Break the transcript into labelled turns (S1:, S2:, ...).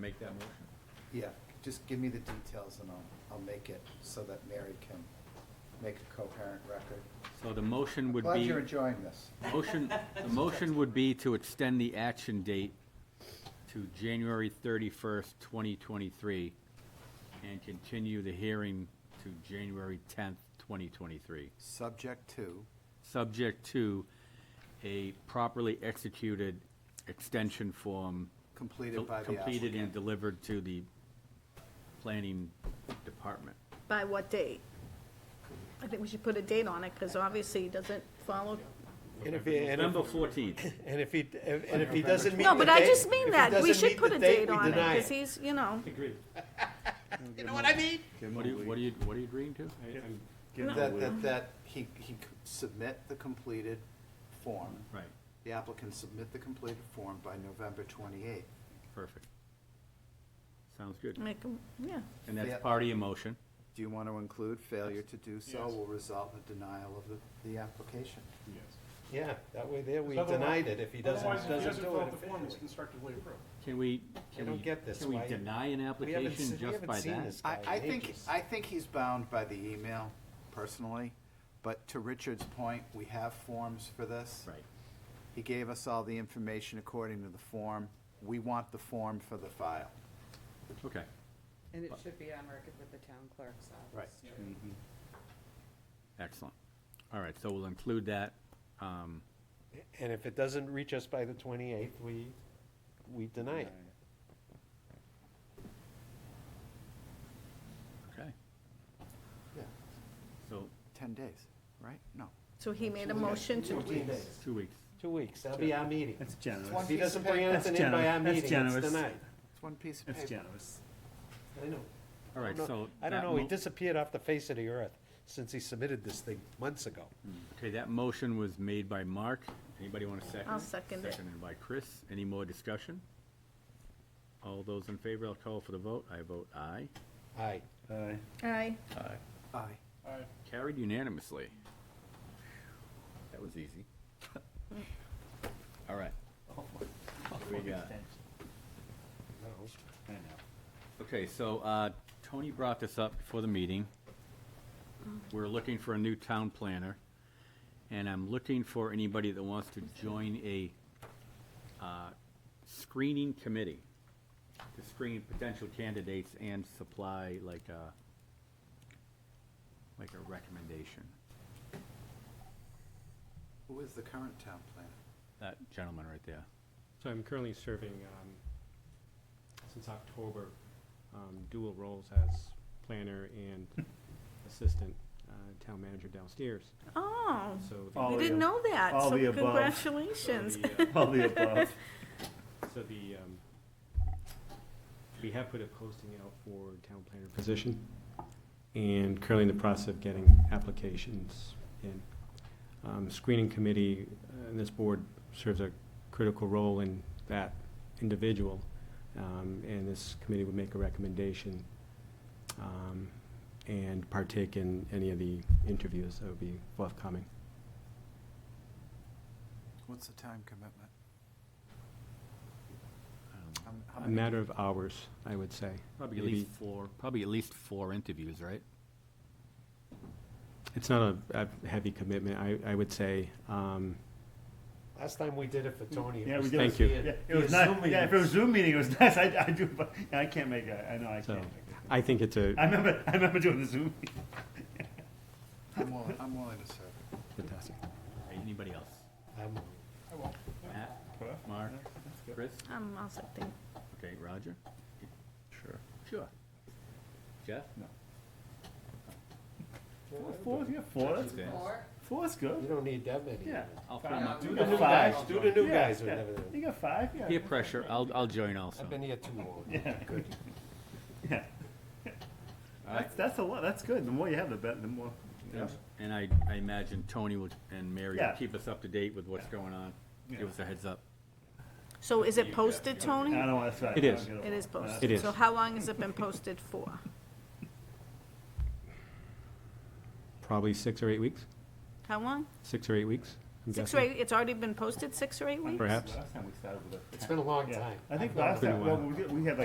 S1: Make that motion.
S2: Yeah, just give me the details and I'll, I'll make it so that Mary can make a coherent record.
S1: So the motion would
S2: Glad
S1: be,
S2: you're enjoying this.
S1: motion, the motion would be to extend the action date to January thirty-first, twenty twenty-three, and continue the hearing to January tenth, twenty twenty-three,
S2: Subject to,
S1: subject to a properly executed extension form
S2: completed by the
S1: completed and
S2: applicant.
S1: delivered to the planning department.
S3: By what date? I think we should put a date on it, because obviously it doesn't follow.
S4: And if he, and if,
S1: November fourteenth.
S4: and if he, and if he doesn't meet
S3: No,
S4: the
S3: but I
S4: date-
S3: just
S4: if
S3: mean
S4: he
S3: that, we
S4: doesn't
S3: should
S4: meet
S3: put
S4: the
S3: a
S4: date,
S3: date
S4: we
S3: on it,
S4: deny
S3: because he's, you know,
S5: Agreed.
S6: You know what I mean?
S1: What are you, what are you, what are you agreeing to?
S5: I- I'm-
S2: That, that, that he, he could submit the completed form,
S1: Right,
S2: the applicant submit the completed form by November twenty-eighth.
S1: perfect. Sounds good.
S3: make 'em- yeah.
S1: And that's
S2: Yeah.
S1: part of your motion.
S2: Do you want to include failure to do so
S5: Yes.
S2: will result in the denial of the, the application?
S5: Yes.
S4: Yeah, that way there, we
S5: Because otherwise-
S4: denied it if he doesn't,
S5: Otherwise,
S4: doesn't
S5: if he
S4: do it.
S5: doesn't fill out the form, it's
S4: officially.
S5: constructively approved.
S1: Can we, can
S4: don't
S1: we,
S4: get this,
S1: can we
S4: why-
S1: deny an
S4: We haven't se-
S1: application
S4: we
S1: just
S4: haven't
S1: by
S4: seen
S1: that?
S4: this
S2: I,
S4: guy
S2: I
S4: in
S2: think,
S4: ages.
S2: I think he's bound by the email personally, but to Richard's point, we have forms for this.
S1: Right,
S2: He gave us all the information according to the form. We want the form for the file.
S1: okay.
S7: And it should be on record with the town clerk's office. Right.
S1: Excellent. All right, so we'll include that. Um,
S4: And if it doesn't reach us by the twenty-eighth, we, we deny it.
S1: okay,
S2: Yeah.
S1: so,
S2: Ten days, right? No.
S3: So he made a motion to,
S1: two weeks.
S4: Two weeks, that'll be our meeting.
S6: That's
S4: If
S6: generous.
S4: he doesn't bring anything in by our
S6: generous. That's
S4: meeting, it's
S6: generous.
S4: denied.
S2: It's one piece of paper.
S6: That's generous.
S4: I know.
S1: All right,
S4: No,
S1: so.
S4: I don't
S1: that
S4: know, he
S1: mo-
S4: disappeared off the face of the earth since he submitted this thing months ago.
S6: Mm.
S1: Okay, that motion was made by Mark. Anybody want to second?
S3: I'll
S1: it?
S3: second it.
S1: Seconded by Chris. Any more discussion? All those in favor, I'll call for the vote. I vote aye.
S4: Aye.
S6: Aye.
S3: aye,
S2: Aye.
S1: Carried unanimously. That was easy. All right. we got?
S4: No.
S6: I know.
S1: Okay, so uh, Tony brought this up before the meeting. We're looking for a new town planner, and I'm looking for anybody that wants to join a uh, screening committee to screen potential candidates and supply like a, like a recommendation.
S2: Who is the current town planner?
S1: That gentleman right there.
S8: So I'm currently serving, um, since October, um, dual roles as planner and assistant, uh, town manager downstairs,
S3: oh,
S8: so. the-
S6: All
S3: we
S6: the
S3: didn't know that,
S6: all
S3: so
S6: the above.
S8: so
S3: congratulations.
S8: the, uh,
S6: All the above.
S8: So the, um, we have put a posting out for town planner position, and currently in the process of getting applications in. Um, Screening committee, uh, and this board serves a critical role in that individual, um, and this committee would make a recommendation um, and partake in any of the interviews that would be forthcoming.
S2: What's the time commitment?
S1: Um,
S2: Um, how
S8: A
S2: many-
S8: matter of hours, I would say.
S1: Probably at
S8: Maybe-
S1: least four, probably at least four interviews, right?
S8: It's not a a heavy commitment, I, I would say. um,
S4: Last time we did it for Tony. it
S6: Yeah, we
S4: was
S6: did.
S8: Thank you.
S6: Yeah,
S4: He
S6: it was
S4: assumed
S6: nice.
S4: we
S6: Yeah,
S4: did.
S6: if it was Zoom meeting, it was nice. I, I do, but I can't make it. I know I
S8: So,
S6: can't. make it.
S8: I think it's
S6: I
S8: a
S6: remember, I remember doing the Zoom. meeting.
S2: I'm willing, I'm willing to serve.
S8: fantastic.
S1: Anybody else?
S4: I'm-
S1: Matt,
S6: Well,
S1: Mark, Chris?
S3: Um, I'll second.
S1: Okay, Roger? Sure. Sure. Jeff?
S6: No. Four, yeah, four. That's
S1: Okay.
S7: Or,
S6: four's
S4: You
S6: good.
S4: don't need that many.
S6: Yeah.
S1: I'll
S6: Five.
S1: find out.
S4: Do
S6: You
S4: the
S6: got
S4: new
S6: five.
S4: guys, do the new
S6: Yeah,
S4: guys with
S6: yeah.
S4: everything.
S6: You got five. Yeah.
S1: Peer pressure, I'll, I'll join also.
S4: I've been here too long.
S6: Yeah.
S4: Good.
S6: Yeah.
S1: All right.
S6: That's, that's a lot. That's good. The more you have, the better. The more.
S1: And- And I, I imagine Tony would, and Mary
S6: Yeah.
S1: will keep us up to date with what's going on.
S6: Yeah.
S1: Give us a heads up.
S3: So is it posted, Tony?
S6: I don't want to try.
S8: It is.
S3: It is posted.
S8: It is.
S3: So how long has it been posted for?
S8: Probably six or eight weeks,
S3: How long?
S8: six or eight weeks. I'm
S3: Six or
S8: guessing.
S3: eight, it's already been posted six or eight weeks?
S8: Perhaps.
S6: Last time we started with a-
S4: It's been a long
S6: Yeah.
S4: time.
S6: I think
S4: I've gone
S6: last time,
S8: a
S6: well,
S8: while.
S6: we did- we had like